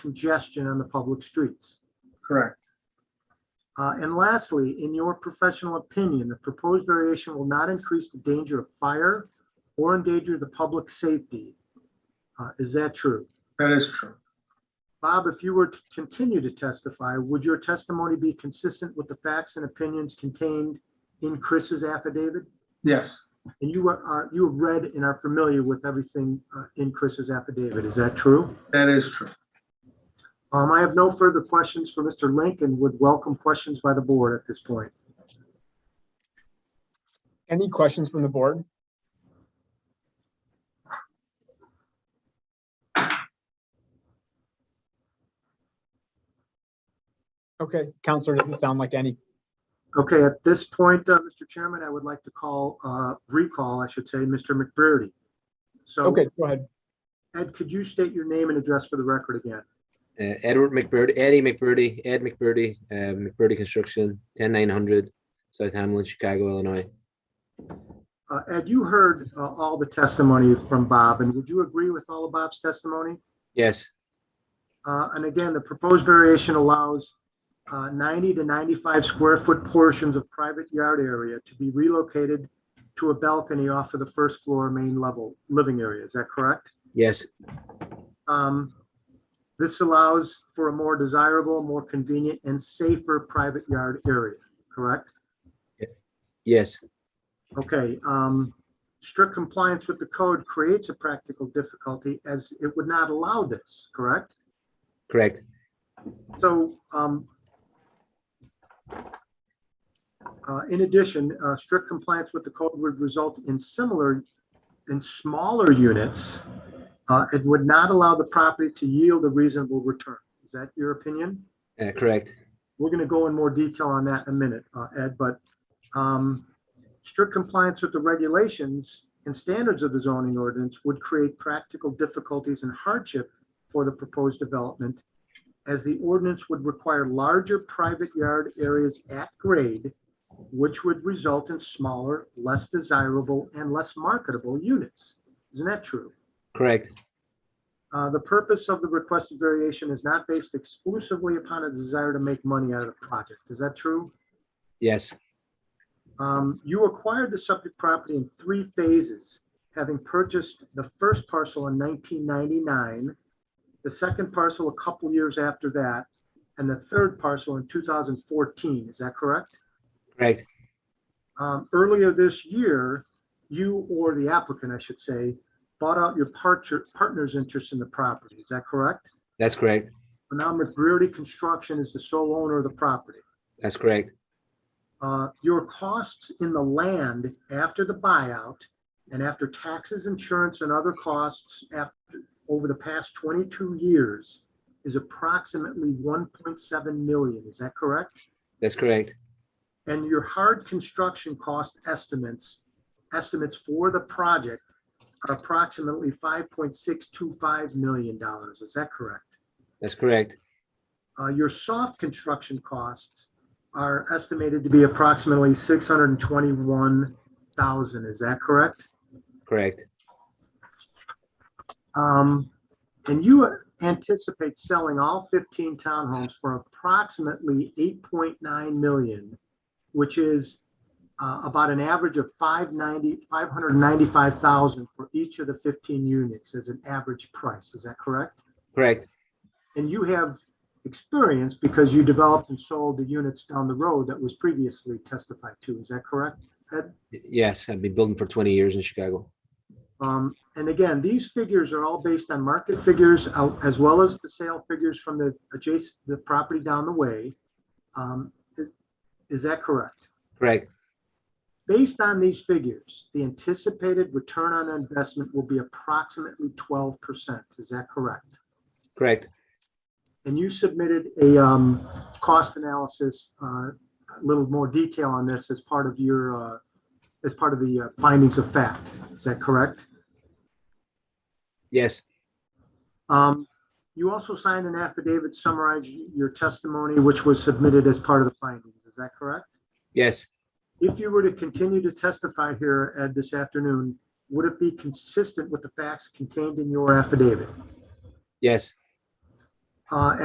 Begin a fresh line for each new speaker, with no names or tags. congestion on the public streets?
Correct.
Uh, And lastly, in your professional opinion, the proposed variation will not increase the danger of fire or endanger the public safety. Uh, Is that true?
That is true.
Bob, if you were to continue to testify, would your testimony be consistent with the facts and opinions contained in Chris's affidavit?
Yes,
And you are- are, you have read and are familiar with everything uh, in Chris's affidavit, is that true?
that is true.
Um, I have no further questions for Mr. Link and would welcome questions by the board at this point.
Any questions from the board? Okay, Counselor, doesn't sound like any.
Okay, at this point, uh, Mr. Chairman, I would like to call, uh, recall, I should say, Mr. McBurney. So
Okay, go ahead.
Ed, could you state your name and address for the record again?
Uh, Edward McBurdy, Eddie McBurdy, Ed McBurdy, uh, McBurdy Construction, 10900 South Hamlin, Chicago, Illinois.
Uh, Ed, you heard, uh, all the testimony from Bob and would you agree with all of Bob's testimony?
Yes,
Uh, and again, the proposed variation allows uh, 90 to 95 square foot portions of private yard area to be relocated to a balcony off of the first floor main level living area. Is that correct?
yes,
Um, This allows for a more desirable, more convenient and safer private yard area, correct?
yes,
Okay, um, strict compliance with the code creates a practical difficulty as it would not allow this, correct?
correct.
So, um, uh, in addition, uh, strict compliance with the code would result in similar, in smaller units. Uh, it would not allow the property to yield a reasonable return. Is that your opinion?
Uh, correct.
We're gonna go in more detail on that in a minute, uh, Ed, but, um, strict compliance with the regulations and standards of the zoning ordinance would create practical difficulties and hardship for the proposed development, as the ordinance would require larger private yard areas at grade, which would result in smaller, less desirable, and less marketable units. Isn't that true?
Correct.
Uh, the purpose of the requested variation is not based exclusively upon a desire to make money out of the project. Is that true?
Yes,
Um, you acquired the subject property in three phases, having purchased the first parcel in nineteen ninety-nine, the second parcel a couple years after that, and the third parcel in two thousand fourteen. Is that correct?
correct.
um, earlier this year, you or the applicant, I should say, bought out your partner, partner's interest in the property. Is that correct?
That's correct.
But now McBurdy Construction is the sole owner of the property.
That's correct.
Uh, your costs in the land after the buyout and after taxes, insurance, and other costs after, over the past 22 years is approximately 1.7 million. Is that correct?
That's correct.
and your hard construction cost estimates, estimates for the project are approximately $5.625 million. Is that correct?
That's correct.
Uh, Your soft construction costs are estimated to be approximately $621,000. Is that correct?
Correct.
Um, And you anticipate selling all 15 townhomes for approximately 8.9 million, which is uh, about an average of 590, 595,000 for each of the 15 units as an average price. Is that correct?
Correct.
And you have experience because you developed and sold the units down the road that was previously testified to. Is that correct?
Y- Yes, I've been building for 20 years in Chicago.
Um, and again, these figures are all based on market figures uh, as well as the sale figures from the adjacent, the property down the way. Um, is, is that correct?
Correct.
Based on these figures, the anticipated return on investment will be approximately twelve percent. Is that correct?
Correct.
And you submitted a, um, cost analysis, uh, a little more detail on this as part of your, uh, as part of the uh, findings of fact. Is that correct?
Yes,
Um, you also signed an affidavit summarizing your testimony, which was submitted as part of the findings. Is that correct?
yes,
If you were to continue to testify here, Ed, this afternoon, would it be consistent with the facts contained in your affidavit?
yes,
uh,